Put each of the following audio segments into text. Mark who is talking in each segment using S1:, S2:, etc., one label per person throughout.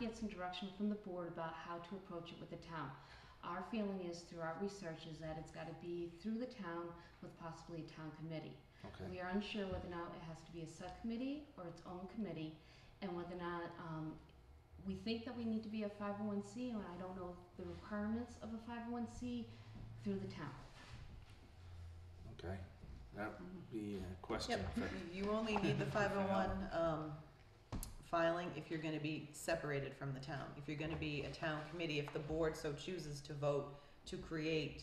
S1: get some direction from the board about how to approach it with the town. Our feeling is through our research is that it's gotta be through the town with possibly a town committee.
S2: Okay.
S1: We are unsure whether or not it has to be a subcommittee or its own committee, and whether or not, um, we think that we need to be a five oh one C, and I don't know the requirements of a five oh one C through the town.
S2: Okay. That
S3: Mm-hmm.
S2: would be a question.
S3: Yep.
S2: for-
S3: You only need the five oh one, um, filing if you're gonna be separated from the town. If you're gonna be a town committee, if the board so chooses to vote to create,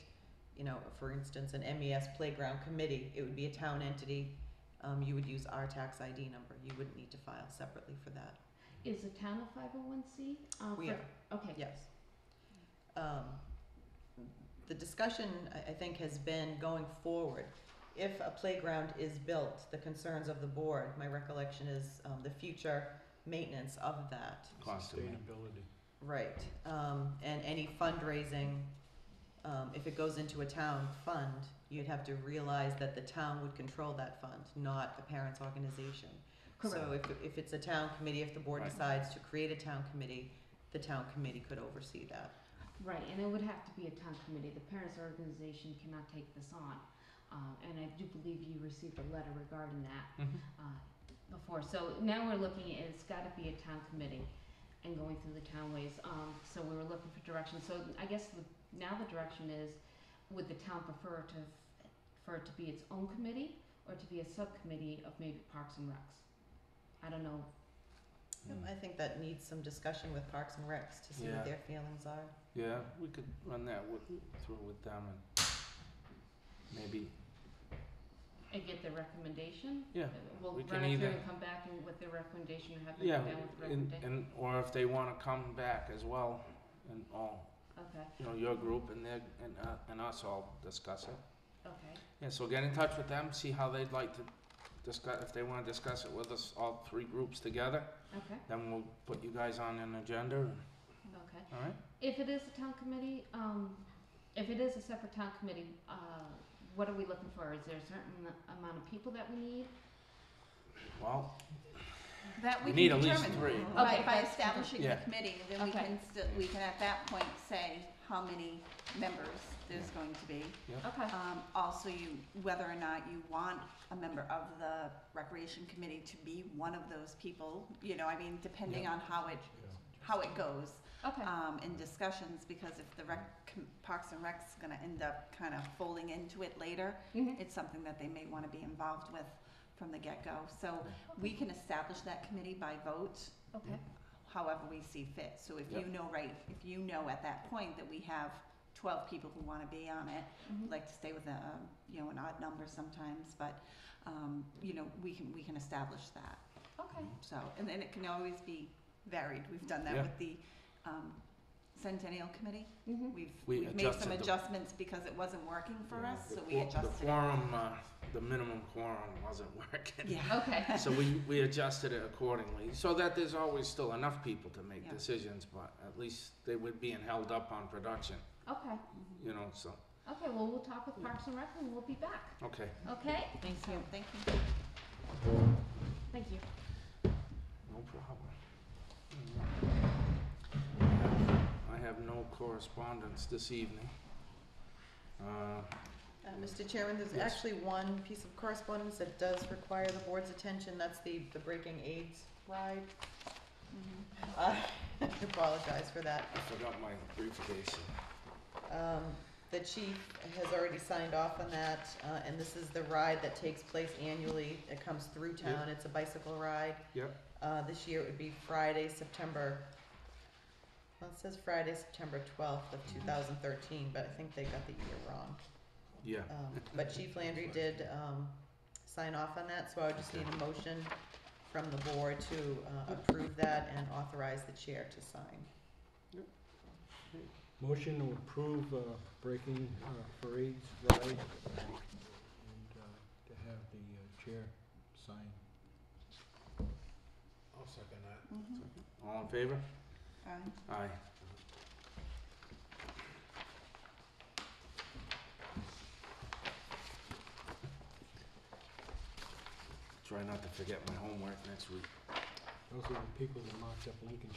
S3: you know, for instance, an MES playground committee, it would be a town entity. Um, you would use our tax ID number. You wouldn't need to file separately for that.
S1: Is the town a five oh one C?
S3: We are.
S1: Okay.
S3: Yes. Um, The discussion, I, I think, has been going forward. If a playground is built, the concerns of the board, my recollection is um, the future maintenance of that.
S2: Cost of it.
S3: Right. Um, And any fundraising, um, if it goes into a town fund, you'd have to realize that the town would control that fund, not the parents' organization. So if, if it's a town committee, if the board
S2: Right.
S3: decides to create a town committee, the town committee could oversee that.
S1: Right, and it would have to be a town committee. The parents' organization cannot take this on. Um, and I do believe you received a letter regarding that
S2: Mhm.
S1: uh, before. So now we're looking at it's got to be a town committee and going through the townways. Um, so we were looking for direction. So I guess the, now the direction is would the town prefer to f- for it to be its own committee or to be a subcommittee of maybe Parks and Recs? I don't know.
S3: Yep,
S2: Mm.
S3: I think that needs some discussion with Parks and Recs to see
S2: Yeah.
S3: what their feelings are.
S2: Yeah, we could run that with, through with them and maybe,
S1: And get the recommendation.
S2: yeah.
S1: We'll
S2: We
S1: run
S2: can
S1: it through
S2: either-
S1: and come back and with the recommendation and have them
S2: Yeah,
S1: come down with the
S2: and,
S1: recommendation.
S2: and, or if they wanna come back as well and all,
S1: Okay,
S2: you know, your group and their, and, uh, and us all discuss it.
S1: okay.
S2: Yeah, so get in touch with them, see how they'd like to discuss, if they wanna discuss it with us, all three groups together.
S1: Okay,
S2: Then we'll put you guys on an agenda, and-
S1: okay.
S2: all right?
S1: If it is a town committee, um, if it is a separate town committee, uh, what are we looking for? Is there a certain amount of people that we need?
S2: Well,
S4: That
S2: We
S4: we
S2: need
S4: can
S2: at least
S4: determine
S2: three.
S4: by,
S1: Okay.
S4: by establishing the
S2: Yeah.
S4: committee, then we
S1: Okay.
S4: can, still we can at that point say how many members there's going to be.
S1: Okay,
S4: Um, also you, whether or not you want a member of the recreation committee to be one of those people, you know, I mean, depending
S2: Yeah.
S4: on how it, how it goes,
S1: okay,
S4: um, in discussions, because if the rec, com- Parks and Rec's gonna end up kind of folding into it later,
S1: Mhm.
S4: it's something that they may want to be involved with from the get-go. So we can establish that committee by vote
S1: okay,
S4: however we see fit. So if you
S2: Yep.
S4: know, right, if you know at that point that we have twelve people who want to be on it,
S1: Mhm.
S4: like to stay with a, um, you know, an odd number sometimes, but, um, you know, we can, we can establish that.
S1: okay.
S4: So, and then it can always be varied. We've done that
S2: Yeah.
S4: with the, um, Centennial Committee.
S1: Mhm.
S4: We've,
S2: We
S4: we've made
S2: adjusted
S4: some
S2: the-
S4: adjustments because it wasn't working for
S2: Yeah,
S4: us,
S2: the
S4: so we
S2: quor- The
S4: adjusted. it.
S2: quorum, uh, the minimum quorum wasn't working.
S4: Yeah.
S1: Okay,
S2: So we, we adjusted it accordingly, so that there's always still enough people to make
S4: Yeah.
S2: decisions, but at least they would being held up on production,
S1: okay,
S2: you know, so,
S1: okay, well, we'll talk with Parks and Rec and we'll be back,
S2: okay.
S1: okay?
S3: Thank
S4: So, thank you.
S1: Thank you.
S2: No problem. I have no correspondence this evening. Uh,
S3: Uh, Mr. Chairman, there's
S2: Yes.
S3: actually one piece of correspondence that does require the board's attention, that's the, the Breaking AIDS ride.
S4: Mm-hmm.
S3: Uh, I apologize for that.
S2: I forgot my briefcase.
S3: Um, the chief has already signed off on that, uh, and this is the ride that takes place annually. It comes through town, it's a bicycle ride.
S2: Yep.
S3: Uh, this year it would be Friday, September, well, it says Friday, September twelfth of two thousand thirteen, but I think they got the year wrong.
S2: Yeah,
S3: Um, but Chief Landry did, um, sign off on that, so I would just need a motion from the board to, uh, approve that and authorize the chair to sign.
S5: Motion to approve uh, breaking uh, for AIDS ride and uh, to have the uh, chair sign.
S2: I'll second that.
S4: Mhm.
S2: All in favor?
S4: All right.
S2: Aye. Try not to forget my homework next week.
S5: Those are the people that marked up Lincoln